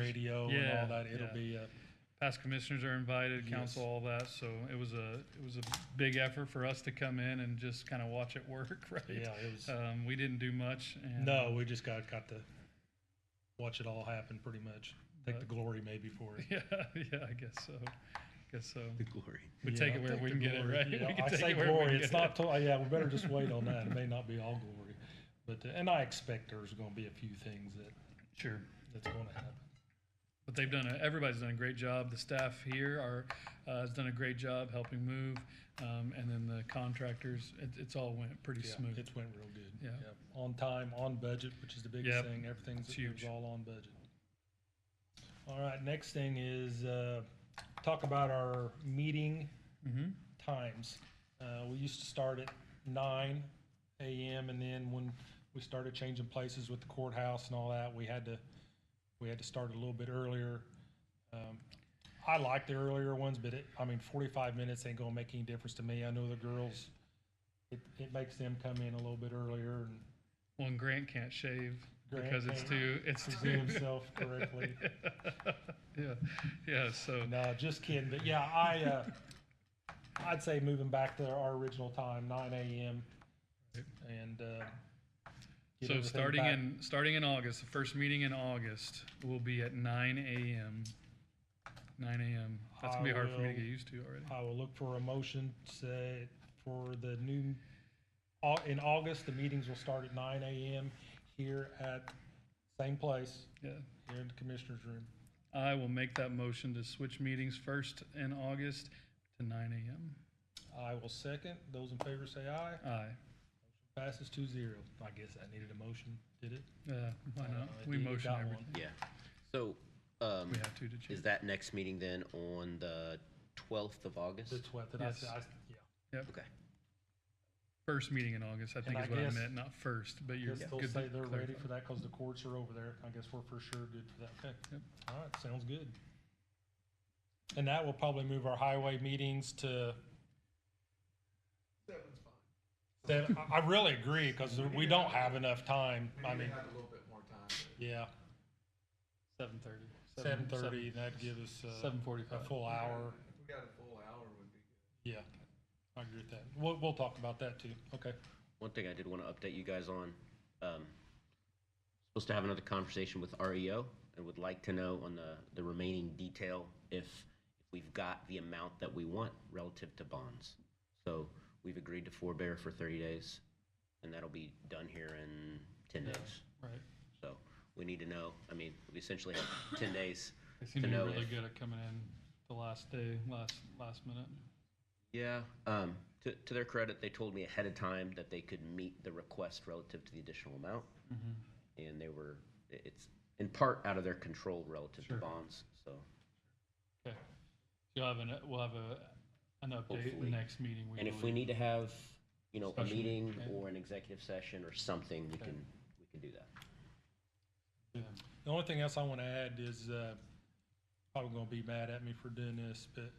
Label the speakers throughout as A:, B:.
A: radio
B: Yeah,
A: and all that. It'll
B: yeah.
A: be a,
B: Past commissioners are invited, council,
A: Yes.
B: all that, so it was a, it was a big effort for us to come in and just kind of watch it work, right?
A: yeah. It was
B: Um, we didn't do much and.
A: no. We just got got to watch it all happen pretty much. Take the
B: But-
A: glory maybe for it.
B: Yeah, yeah, I guess so, guess so.
C: The glory.
B: We
A: Yeah,
B: take it where
A: take
B: we
A: the
B: can get it,
A: glory.
B: right?
A: Yeah,
B: We can
A: I
B: take
A: say
B: it where we
A: glory.
B: can
A: It's
B: get it.
A: not. To, yeah, we better just wait on that. It may not be all glory, but uh, and I expect there's going to be a few things that
B: Sure.
A: that's going to happen.
B: But they've done, a, everybody's done a great job. The staff here are, uh, has done a great job helping move. Um, and then the contractors, it, it's all went pretty
A: Yeah,
B: smooth.
A: It's went real good.
B: Yeah.
A: On time, on budget, which is the biggest
B: Yep.
A: thing. Everything's
B: It's
A: it was
B: huge.
A: all on budget. All right, next thing is uh, talk about our meeting
B: Mm-hmm.
A: times. Uh, we used to start at nine a.m. and then when we started changing places with the courthouse and all that, we had to we had to start a little bit earlier. Um, I like the earlier ones, but it, I mean, forty-five minutes ain't gonna make any difference to me. I know the girls, it, it makes them come in a little bit earlier and
B: Well, and Grant can't shave
A: Grant
B: because it's
A: can't
B: too, it's
A: present
B: too.
A: himself correctly.
B: Yeah, yeah, so,
A: No, just kidding. But yeah, I uh, I'd say moving back to our original time, nine a.m. and uh, get
B: so
A: everything
B: starting
A: back.
B: in, starting in August, the first meeting in August will be at nine AM. Nine AM. That's gonna be
A: I
B: hard for me to
A: will-
B: get used to already.
A: I will look for a motion say for the new au- in August. The meetings will start at nine a.m. here at same place
B: Yeah.
A: here in the commissioner's room.
B: I will make that motion to switch meetings first in August to nine AM.
A: I will second. Those in favor say aye.
B: Aye.
A: Passes two zero. I guess I needed a motion. Did it?
B: Uh, why
A: Uh,
B: not?
A: I
B: We
A: think you
B: motion
A: got
B: everything.
C: Yeah. So, um,
B: We have to, did you?
C: is that next meeting then on the twelfth of August?
A: The twelfth. Did
B: Yes.
A: I say? I, yeah.
C: Okay.
B: First meeting in August, I think
A: And
B: is
A: I
B: what I
A: guess-
B: meant, not first, but you're
A: Guess
B: good.
A: they'll
B: to
A: say they're ready
B: clarify.
A: for that because the courts are over there. I guess we're for sure good for that. Okay.
B: Yep.
A: All right, sounds good. And that will probably move our highway meetings to. Seven's fine. I, I really agree because we don't have enough time. I mean,
D: have a little bit more time.
A: yeah,
B: Seven thirty.
A: seven thirty, that'd give us uh,
B: Seven
A: a
B: forty-five.
A: full hour.
D: If we got a full hour, would be good.
A: Yeah, I agree with that. We'll, we'll talk about that too. Okay.
C: One thing I did want to update you guys on, um, supposed to have another conversation with REO and would like to know on the, the remaining detail if, if we've got the amount that we want relative to bonds. So we've agreed to forbear for thirty days and that'll be done here in ten days.
B: Right.
C: So we need to know, I mean, we essentially have ten days.
B: They seem
C: to
B: to be
C: know
B: really
C: if-
B: good at coming in the last day, last, last minute.
C: Yeah, um, to, to their credit, they told me ahead of time that they could meet the request relative to the additional amount.
B: Mm-hmm.
C: And they were, i- it's in part out of their control relative to
B: Sure.
C: bonds, so
B: Okay. You'll have an, we'll have a, an update the
C: Hopefully.
B: next meeting.
C: and if we
B: believe.
C: need to have, you know, a
B: Special meeting,
C: meeting
B: okay.
C: or an executive session or something, we
B: Okay.
C: can, we can do that.
B: Yeah.
A: The only thing else I want to add is, uh, probably gonna be mad at me for doing this, but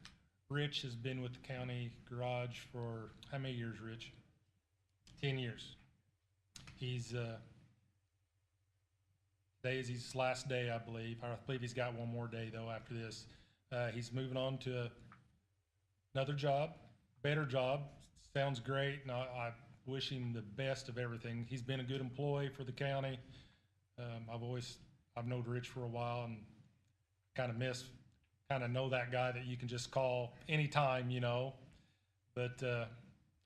A: Rich has been with the county garage for, how many years, Rich? Ten years. He's, uh, today is his last day, I believe. I believe he's got one more day though after this. Uh, he's moving on to another job, better job. Sounds great, and I, I wish him the best of everything. He's been a good employee for the county. Um, I've always I've known Rich for a while and kind of miss, kind of know that guy that you can just call anytime, you know. But uh,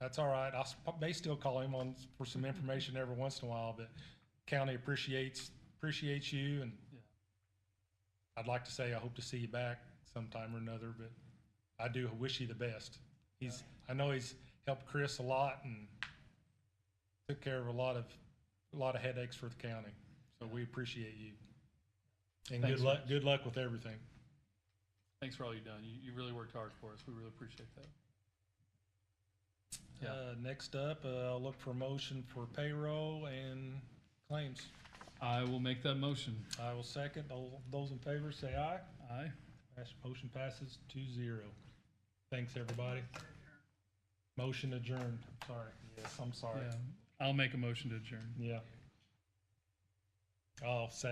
A: that's all right. I s- may still call him on for some information every once in a while. But county appreciates appreciates you, and
B: Yeah.
A: I'd like to say I hope to see you back sometime or another. But I do wish you the best. He's I know he's helped Chris a lot and took care of a lot of a lot of headaches for the county. So we appreciate you. And good
B: Thanks,
A: luck, good luck with everything.
B: Thanks for all you've done. You, you really worked hard for us. We really appreciate that. Yeah.
A: Uh, next up, uh, I'll look for a motion for payroll and claims.
B: I will make that motion.
A: I will second. All those in favor say aye.
B: Aye.
A: Pass- Motion passes two zero. Thanks, everybody. Motion adjourned. Sorry. Yes, I'm sorry.
B: Yeah. I'll make a motion to adjourn.
A: Yeah. I'll second.